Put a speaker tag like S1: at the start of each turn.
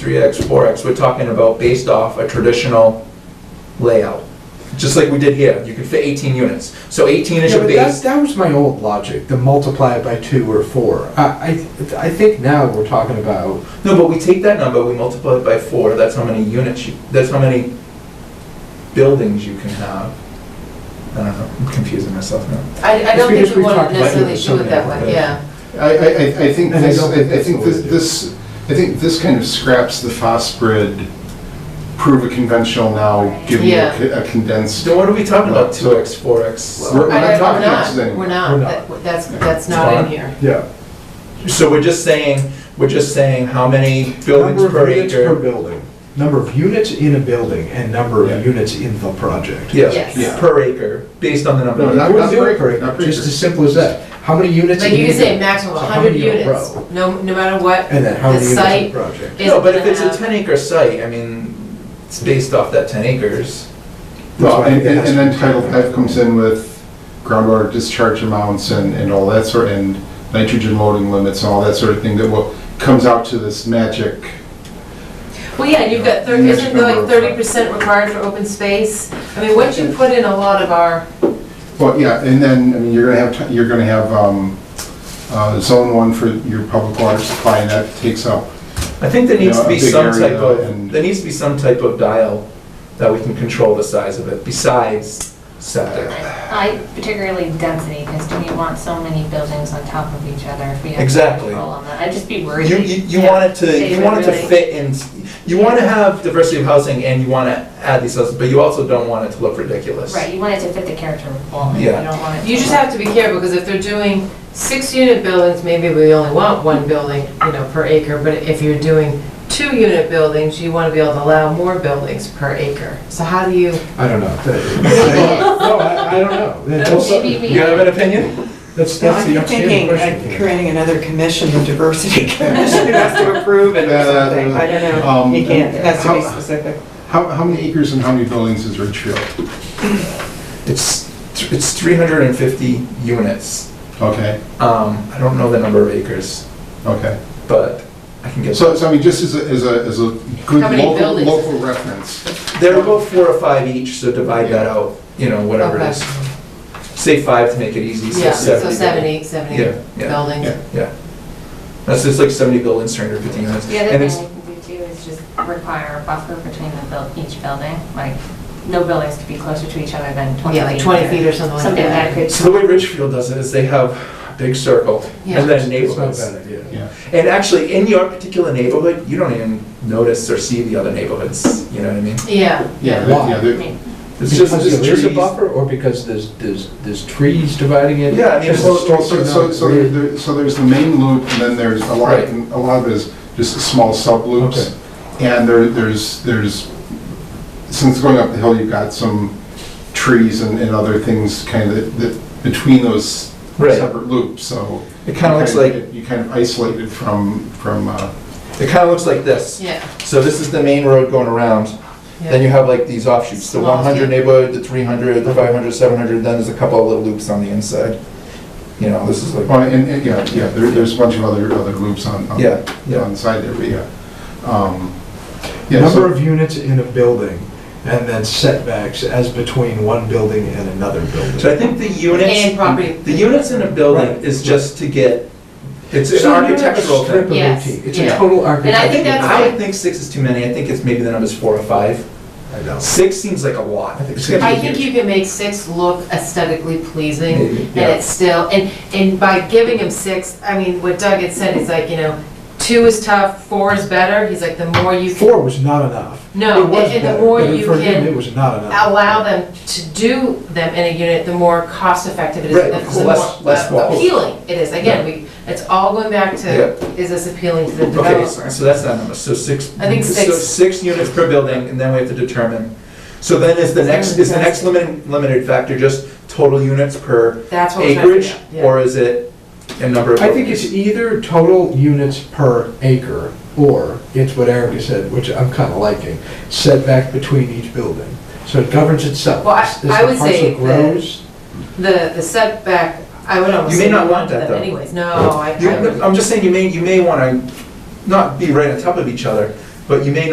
S1: 3x, 4x, we're talking about based off a traditional layout. Just like we did here, you could fit 18 units. So 18 is
S2: Yeah,
S1: your
S2: but that,
S1: base.
S2: that was my old logic, the multiply it by two or four. I, I, I think now we're talking about,
S1: No, but we take that number, we multiply it by 4, that's how many units, you- that's how many buildings you can have. I don't know, I'm confusing myself now.
S3: I, I
S2: Just
S3: don't think
S2: because
S3: we
S2: we've
S3: want
S2: talked
S3: to
S2: about
S3: necessarily
S2: doing
S3: do it that
S2: something
S3: way, yeah.
S4: I, I, I- I think
S2: And I
S4: this,
S2: don't
S4: I
S2: think
S4: I
S2: that's
S4: think
S2: the way
S4: this,
S2: to do it.
S4: this, I think this kind of scraps the FOSBRD, prove a conventional now, give you
S3: Yeah.
S4: a co- a condensed.
S1: Then what are we talking about,
S4: Right, so-
S1: 2x, 4x?
S4: We're- we're
S3: I-
S4: not
S3: I-
S4: talking about this
S3: We're
S4: anymore.
S3: not,
S2: We're
S3: That- that's, that's
S1: Fine.
S3: not in here.
S2: yeah.
S1: So we're just saying, we're just saying how many buildings
S2: Number
S1: per
S2: of units Per
S1: acre?
S2: building, number of units in a building and number
S4: Yeah.
S2: of units in the project.
S3: Yes.
S1: Yeah,
S3: Yeah.
S1: per acre, based on the number.
S4: No,
S1: of
S4: not-
S2: I
S1: units.
S2: wouldn't do it
S4: per-
S2: per acre,
S4: not per
S2: just
S4: acre.
S2: as simple as that. How many units?
S3: Like
S2: in
S3: you can
S2: a
S3: say
S2: building?
S3: maximum
S2: So how
S3: hundred
S2: many in a
S3: units,
S2: row?
S3: no, no matter what,
S2: And then how
S3: the
S2: many units in
S3: site
S2: the project?
S3: is
S1: No, but if
S3: gonna
S1: it's a
S3: have-
S1: ten acre site, I mean, it's based off that ten acres.
S2: That's
S4: Well,
S2: why I
S4: and,
S2: think it
S4: and
S2: has
S4: and
S2: to
S4: then
S2: be
S4: Title
S2: different.
S4: V comes in with groundwater discharge amounts and, and all that sort, and nitrogen loading limits and all that sort of thing that will, comes out to this magic.
S3: Well, yeah, you've got, thir-
S4: Huge
S3: isn't there
S4: number
S3: like
S4: of-
S3: thirty percent required for open space? I mean, once you put in a lot of our,
S4: Well, yeah, and then, I mean, you're gonna have, ti- you're gonna have, um, uh, zone one for your public water supply, and that takes up
S1: I think there needs to be
S4: Yeah, a big
S1: some
S4: area
S1: type of,
S4: and-
S1: there needs to be some type of dial that we can control the size of it besides septic.
S5: I particularly density, because do we want so many buildings on top of each other if we have
S1: Exactly.
S5: control on that? I'd just be
S1: You,
S5: worried.
S1: you you
S5: Yeah.
S1: want it to,
S5: Save
S1: you want it to
S5: everybody.
S1: fit in, you want to have diversity of housing and you want to add these houses, but you also don't want it to look ridiculous.
S5: Right, you want it to fit the character of the building.
S1: Yeah.
S5: You don't want it.
S3: you just have to be careful, because if they're doing six unit buildings, maybe we only want one building, you know, per acre, but if you're doing two unit buildings, you wanna be able to allow more buildings per acre. So how do you?
S2: I don't know. That- No, I, I don't know. That's also-
S5: Maybe we-
S1: You have an opinion?
S2: That's, that's the
S6: I'm
S2: outstanding
S6: thinking
S2: question.
S6: of creating another commission, the diversity commission, who has to approve it or
S4: Uh,
S6: something. I don't
S4: um,
S6: know. You can't, it has to be
S4: how-
S6: specific.
S4: How, how many acres and how many buildings is Ridgefield?
S1: It's, it's three hundred and fifty units.
S4: Okay,
S1: Um, I don't know the number of acres,
S4: okay.
S1: but I can get.
S4: So, so I mean, just as a, as a, as a good
S3: How many
S4: local,
S3: buildings?
S4: local reference.
S1: They're about four or five each, so divide that out, you know, whatever it is. Say five to make it easy, so
S3: Yeah, so
S1: seventy.
S3: seventy, seventy
S1: Yeah, yeah,
S3: buildings.
S4: yeah.
S1: yeah. That's just like seventy buildings, three hundred fifty units.
S5: The
S1: And
S5: other
S1: it's-
S5: thing we could do is just require a buffer between the buil- each building, like, no buildings could be closer to each other than twenty feet.
S3: Yeah, like 20 feet or something like
S5: Something
S3: that.
S5: that could.
S1: So the way Ridgefield does it is they have a big circle
S3: Yeah.
S1: and then
S2: It's not a
S1: neighborhoods.
S2: bad idea.
S4: Yeah.
S1: And actually, in your particular neighborhood, you don't even notice or see the other neighborhoods, you know what I mean?
S3: Yeah,
S4: Yeah,
S2: Yeah.
S4: they- yeah,
S5: I
S4: they-
S5: mean,
S1: It's just,
S2: Because
S1: just
S2: there is a
S1: trees.
S2: buffer, or because there's, there's, there's trees dividing it?
S1: Yeah, I mean,
S2: Just
S1: well,
S2: the streets
S4: So,
S2: are
S4: so,
S2: not
S4: so there-
S2: grid.
S4: there, so there's the main loop, and then there's a lot,
S1: Right.
S4: a lot of it is just small subloops. And there, there's, there's, since going up the hill, you've got some trees and, and other things kind of, that, between those
S1: Right.
S4: separate loops, so.
S1: It kinda looks like, it
S4: You kind of isolated from, from, uh,
S1: kinda looks like this.
S3: yeah.
S1: So this is the main road going around. Then you have like these offshoots, the
S3: Small,
S1: 100
S3: yeah.
S1: neighborhood, the 300, the 500, 700, then there's a couple of little loops on the inside. You know, this is like,
S4: Well, and, and, yeah, yeah, there, there's a bunch of other, other loops on, on
S1: yeah, yeah.
S4: on the side there, but yeah. Um, Yeah,
S2: Number
S4: so,
S2: of units in a building, and then setbacks as between one building and another
S1: So I
S2: building.
S1: think the
S3: And
S1: units,
S3: property.
S1: the units in a building
S2: Right.
S1: is just to get, it's an
S2: So you're gonna have a
S1: architectural
S2: strip
S1: thing.
S2: of
S3: Yes,
S2: 18. It's a
S3: yeah.
S2: total
S3: And I think
S2: architectural.
S3: that's
S1: I
S3: fine.
S1: don't think six is too many, I think it's maybe the number's four or five.
S2: I know.
S1: Six seems like a lot.
S2: I think
S1: It's gonna be
S3: I think
S1: huge.
S3: you can make six look aesthetically pleasing,
S1: Maybe,
S3: and
S1: yeah.
S3: it's still, and, and by giving him six, I mean, what Doug had said, is like, you know, two is tough, four is better, he's like, the more you can,
S2: Four was not enough.
S3: no,
S2: It was
S3: and and
S2: better,
S3: the more
S2: but
S3: you
S2: For him, it
S3: can
S2: was not enough.
S3: allow them to do them in a unit, the more cost effective it is,
S1: Right,
S3: and
S1: of
S3: the
S1: course,
S3: more
S1: less
S3: uh,
S1: walls.
S3: appealing it is, again, we, it's all going back to, is this appealing to the
S1: Okay,
S3: developer?
S1: so so that's that number, so six.
S3: I think
S1: so
S3: six.
S1: Six units per building, and then we have to determine, so then is the next, is the next limited, limited factor just total units per
S3: That's what we're trying to
S1: acreage?
S3: figure out, yeah.
S1: Or is it a number of?
S2: I think it's
S1: buildings?
S2: either total units per acre, or it's what Erica said, which I'm kind of liking, setback between each building. So it governs itself.
S3: Well, I-
S2: As the
S3: I would say
S2: parcel grows,
S3: The, the setback, I would almost
S1: You may
S3: say
S1: not
S3: we
S1: want that,
S3: them
S1: though.
S3: anyways, no, I. I
S1: You-
S3: would-
S1: I'm just saying, you may, you may wanna not be right on top of each other, but you may not